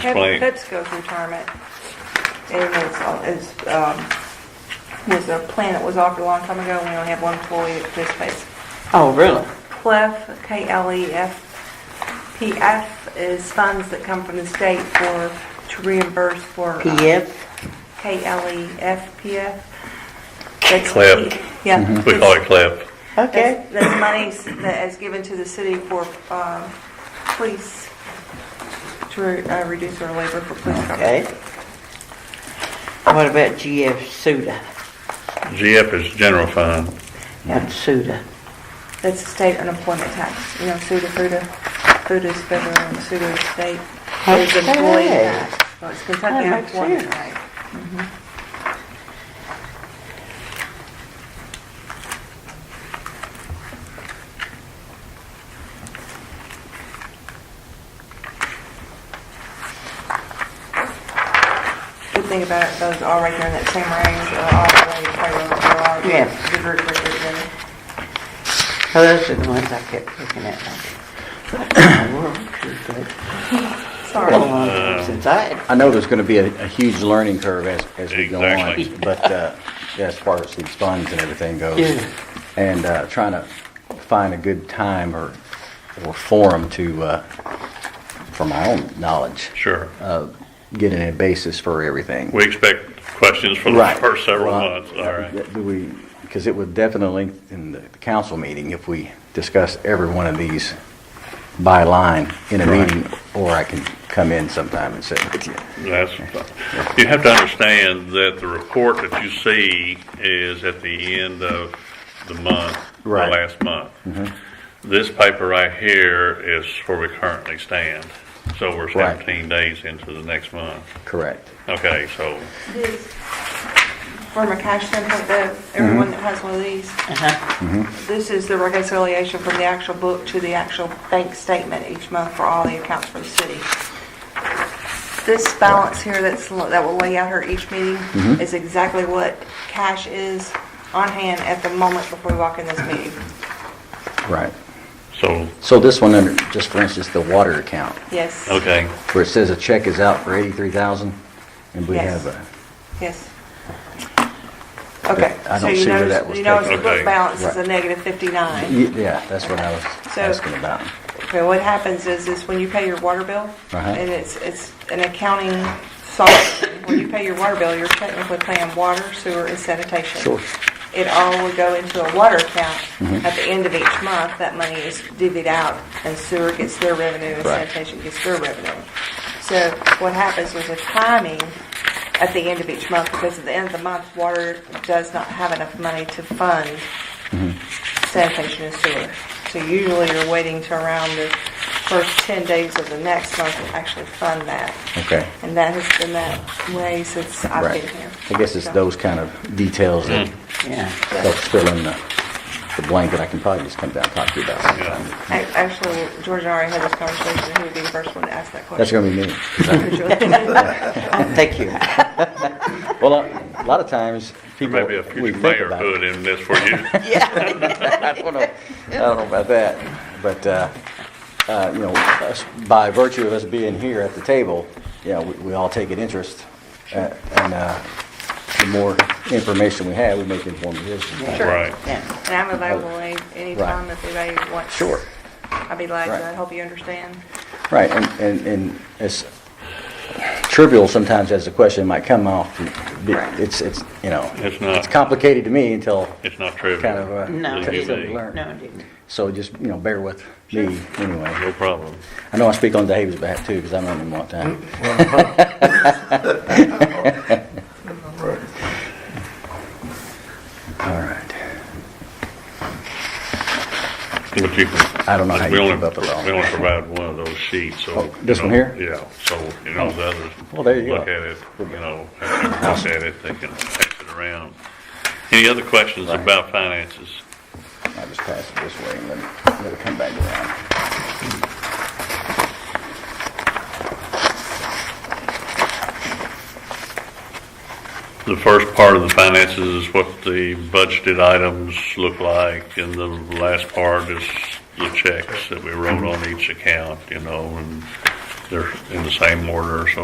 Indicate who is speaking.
Speaker 1: Right.
Speaker 2: Pep- PepsiCo's retirement, it was, uh, is, um, was a plan that was offered a long time ago, we only have one employee that participates.
Speaker 3: Oh, really?
Speaker 2: CLEF, E K-L-E-F, P-F is funds that come from the state for, to reimburse for. uh, E
Speaker 3: PF?
Speaker 2: K-L-E-F, P-F.
Speaker 1: CLEF.
Speaker 2: Yeah.
Speaker 1: E We call it CLEP.
Speaker 3: Mm-hmm. Okay.
Speaker 2: That's that's monies that is given to the city for um, police, to re- uh, reduce our labor for police.
Speaker 3: Okay. What about GF SUDA?
Speaker 1: GF is general fund.
Speaker 3: That's SUDA.
Speaker 2: That's the state unemployment tax, you know, SUDA, FUDA, FUDA is federal, and SUDA is state. There's employee
Speaker 3: Okay.
Speaker 2: tax, so it's Kentucky
Speaker 3: That makes
Speaker 2: unemployment
Speaker 3: sense.
Speaker 2: tax. Mm-hmm. Good thing about it, those are right there in that same range, uh, all the way, payroll, they're all
Speaker 3: Yeah.
Speaker 2: diverted right there together.
Speaker 3: Oh, those are the ones I kept looking at. like, World Trade Federal.
Speaker 2: Sorry.
Speaker 3: Been a long time Since I had
Speaker 4: I know there's going to be a, a huge learning curve as, as we go
Speaker 1: Exactly.
Speaker 4: on, but uh, as far as these funds and everything goes,
Speaker 3: Yeah.
Speaker 4: and uh, trying to find a good time or or forum to, uh, for my own knowledge,
Speaker 1: Sure.
Speaker 4: uh, get a basis for everything.
Speaker 1: We expect questions for the
Speaker 4: Right.
Speaker 1: first several
Speaker 4: Well,
Speaker 1: months. All right.
Speaker 4: Do we? Because it would definitely in the council meeting if we discuss every one of these by line in a meeting, or I can come in sometime and sit with you.
Speaker 1: That's, you have to understand that the report that you see is at the end of the month, the
Speaker 4: Right. Mm-hmm.
Speaker 1: last month. This paper right here is where we currently stand. So we're
Speaker 4: Right.
Speaker 1: 17 days into the next month.
Speaker 4: Correct.
Speaker 1: Okay, so
Speaker 2: These, From a cash standpoint, though, everyone that has one of these,
Speaker 4: Mm-hmm.
Speaker 2: this is the reconciliation from the actual book to the actual bank statement each month for all the accounts for the city. This balance here that's, that will lay out here each meeting
Speaker 4: Mm-hmm.
Speaker 2: is exactly what cash is on hand at the moment before we walk in this meeting.
Speaker 4: Right.
Speaker 1: so
Speaker 4: So this one under, just for instance, the water account,
Speaker 2: Yes.
Speaker 1: okay,
Speaker 4: where it says a check is out for eighty-three thousand, and we
Speaker 2: Yes.
Speaker 4: have a,
Speaker 2: Yes. Okay.
Speaker 4: I
Speaker 2: So
Speaker 4: don't
Speaker 2: you
Speaker 4: see where
Speaker 2: notice-
Speaker 4: that was
Speaker 2: You notice the
Speaker 1: taken. Okay.
Speaker 2: book balance is a
Speaker 4: Right.
Speaker 2: negative 59.
Speaker 4: Y- yeah, that's what I was
Speaker 2: So-
Speaker 4: asking about.
Speaker 2: Okay, what happens is, is when you pay your water bill,
Speaker 4: Uh-huh.
Speaker 2: and it's, it's an accounting software, when you pay your water bill, you're technically paying water, sewer, and sanitation.
Speaker 4: Sure. Mm-hmm.
Speaker 2: It all would go into a water account. At the end of each month, that money is divvied out, and sewer gets their revenue, and
Speaker 4: Right.
Speaker 2: sanitation gets their revenue. So what happens was a timing at the end of each month, because at the end of the month, water does not have enough money to fund sanitation and sewer. So usually you're waiting to around the first 10 days of the next month to actually fund that.
Speaker 4: Okay.
Speaker 2: And that has been that way since I've
Speaker 4: Right.
Speaker 2: been here.
Speaker 4: I guess it's
Speaker 2: So-
Speaker 4: those kind of details that
Speaker 1: Mm.
Speaker 3: Yeah.
Speaker 4: help fill in the, the blank that I can probably just come down and talk to you about sometime.
Speaker 2: Ac- Actually, George and I already had this conversation, he would be the first one to ask that
Speaker 4: That's
Speaker 2: question.
Speaker 4: gonna be me.
Speaker 3: Thank you.
Speaker 4: Well, a lot of times, people,
Speaker 1: maybe a
Speaker 4: we
Speaker 1: future
Speaker 4: think
Speaker 1: mayor
Speaker 4: about it.
Speaker 1: put in this for you.
Speaker 4: I don't know, I don't know about that, but, uh, uh, you know, us- by virtue of us being here at the table, you know, we, we all take an interest, uh, and, uh, the more information we have, we make informed decisions.
Speaker 3: Sure.
Speaker 1: Right.
Speaker 3: Yeah.
Speaker 2: And I'm available any anytime if anybody wants.
Speaker 4: Sure.
Speaker 2: I'd be glad to
Speaker 4: Right.
Speaker 2: help you understand.
Speaker 4: Right, and, and, and as trivial sometimes as the question might come off, it's, it's, you know,
Speaker 1: It's not.
Speaker 4: it's complicated to me until
Speaker 1: It's not trivial.
Speaker 4: kind of, uh,
Speaker 3: No, it
Speaker 1: Leave it be.
Speaker 3: didn't. No, it didn't.
Speaker 4: so just, you know, bear with me anyway.
Speaker 1: No problem.
Speaker 4: I know I speak on David's behalf too, because I known him a long time. All right.
Speaker 1: But you can.
Speaker 4: I don't know how
Speaker 1: we
Speaker 4: you
Speaker 1: only-
Speaker 4: keep up with all
Speaker 1: We only provide one of those sheets, so.
Speaker 4: Oh, this
Speaker 1: you
Speaker 4: one
Speaker 1: know,
Speaker 4: here? Oh.
Speaker 1: Yeah, so, you know, the others.
Speaker 4: Well, there you
Speaker 1: Look
Speaker 4: go.
Speaker 1: at it, you know, after they look at it, they can pass it around. Any other questions
Speaker 4: Right.
Speaker 1: about finances?
Speaker 4: I'll just pass it this way and let it, let it come back around.
Speaker 1: The first part of the finances is what the budgeted items look like, and the last part is the checks that we wrote on each account, you know, and they're in the same order, so